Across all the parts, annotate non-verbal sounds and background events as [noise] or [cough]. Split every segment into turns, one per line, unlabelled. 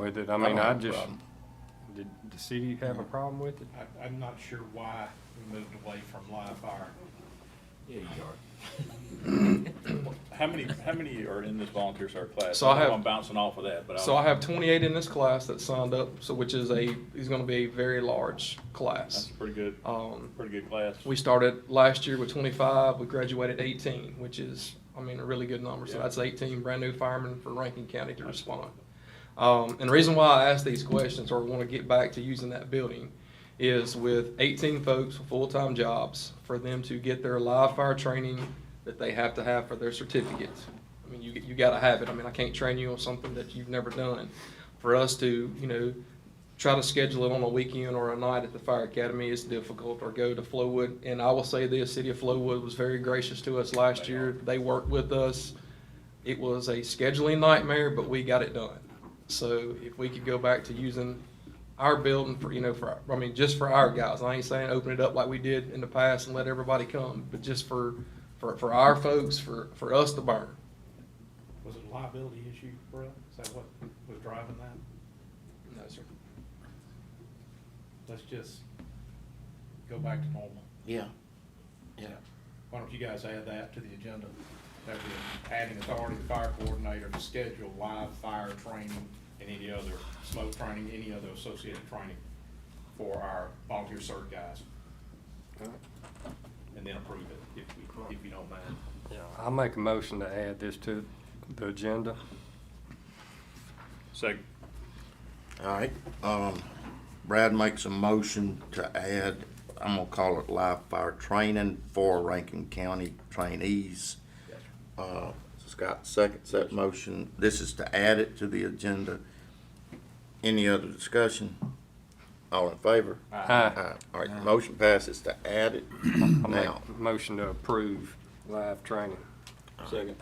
with it. I mean, I
have a
just,
problem.
did the city have a problem with it?
I, I'm not sure why we moved away from live fire.
Yeah, you are.
How many, how many are in this volunteer service class?
So I have-
am bouncing off of that, but
So I
I'll,
have twenty-eight in this class that signed up, so which is a, is gonna be a very large
that's
class.
a pretty good,
Um,
pretty good class.
we started last year with twenty-five, we graduated eighteen, which is, I mean, a really good number. So
Yeah.
that's eighteen brand-new firemen for Rankin County to respond. Um, and the reason why I ask these questions or wanna get back to using that building is with eighteen folks with full-time jobs, for them to get their live fire training that they have to have for their certificates. I mean, you, you gotta have it. I mean, I can't train you on something that you've never done. For us to, you know, try to schedule it on a weekend or a night at the fire academy is difficult, or go to Flowood. And I will say this, city of Flowood was very gracious to us last year. They worked with us. It was a scheduling nightmare, but we got it done. So if we could go back to using our building for, you know, for, I mean, just for our guys, I ain't saying open it up like we did in the past and let everybody come, but just for, for, for our folks, for, for us to burn.
Was it a liability issue, Brett? Is that what was driving that?
No, sir.
Let's just go back to normal.
Yeah, yeah.
Why don't you guys add that to the agenda? That we're adding authority to fire coordinator to schedule live fire training and any other smoke training, any other associated training for our volunteer cert guys. And then approve it if we, if you don't mind.
I'll make a motion to add this to the agenda.
Second.
All right, um, Brad makes a motion to add, I'm gonna call it live fire training for Rankin County trainees. Uh, Scott seconds that motion. This is to add it to the agenda. Any other discussion? All in favor?
Aye.
All right, motion passes to add
[clears throat]
it
I make
now.
a motion to approve live training.
Second.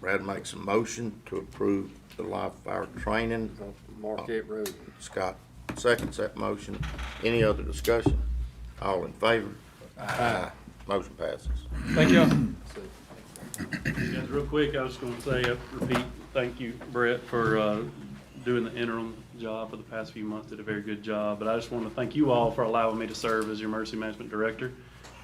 Brad makes a motion to approve the live fire training.
Marquette Road.
Scott seconds that motion. Any other discussion? All in favor? Aye. Motion passes.
Thank you.
Guys, real quick, I was gonna say, uh, repeat, thank you, Brett, for, uh, doing the interim job for the past few months, did a very good job. But I just wanna thank you all for allowing me to serve as your emergency management director,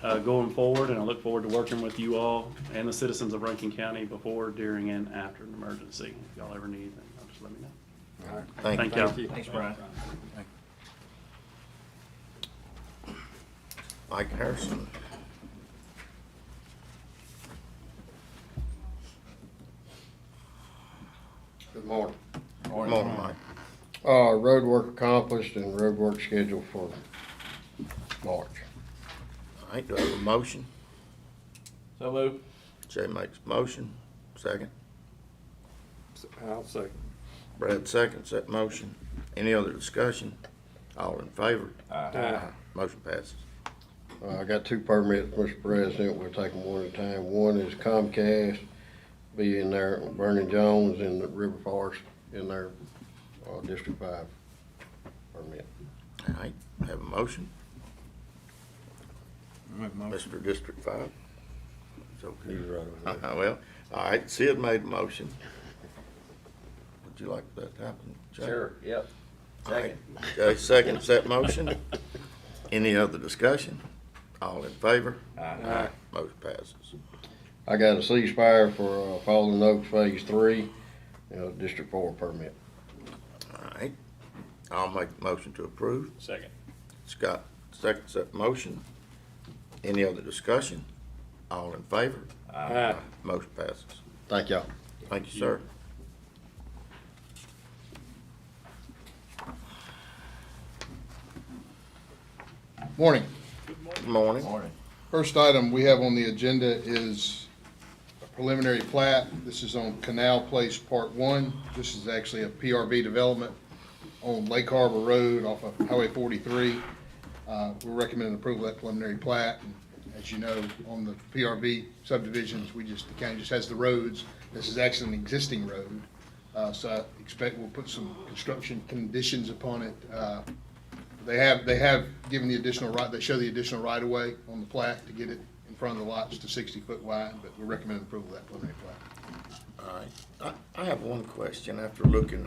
uh, going forward, and I look forward to working with you all and the citizens of Rankin County before, during, and after an emergency. If y'all ever need anything, y'all just let me know.
Thank you.
Thank y'all.
Thanks, Brian.
Mike Harrison.
Good morning.
Good morning, Mike.
Uh, road work accomplished and road work scheduled for March.
All right, do I have a motion?
So move.
Jay makes a motion. Second.
I'll second.
Brad seconds that motion. Any other discussion? All in favor?
Aye.
Motion passes.
Uh, I got two permits, Mr. President, we'll take them one at a time. One is Comcast, be in there, Vernon Jones and the River Forest in their, uh, District Five permit.
All right, have a motion. Mr. District Five. It's okay.
He's right over there.
Uh-huh, [laughs] Well, all right, Sid made a motion. Would you like that to happen? Jay?
Sure, yep.
All right, Jay seconds that motion. Any other discussion? All in favor? Aye. Motion passes.
I got a ceasefire for, uh, Fallen Oaks Phase Three, you know, District Four permit.
All right, I'll make the motion to approve.
Second.
Scott seconds that motion. Any other discussion? All in favor?
Aye.
Motion passes.
Thank y'all.
Thank you, sir.
Morning.
Good morning.
Morning.
First item we have on the agenda is a preliminary plat. This is on Canal Place Part One. This is actually a PRB development on Lake Harbor Road off of Highway forty-three. Uh, we're recommending approval of that preliminary plat. And As you know, on the PRB subdivisions, we just, the county just has the roads. This is actually an existing road. Uh, so I expect we'll put some construction conditions upon it, uh, They have, they have given the additional right, they show the additional right of way on the plat to get it in front of the lots to sixty foot wide, but we recommend approval of that preliminary plat.
All right. I, I have one question after looking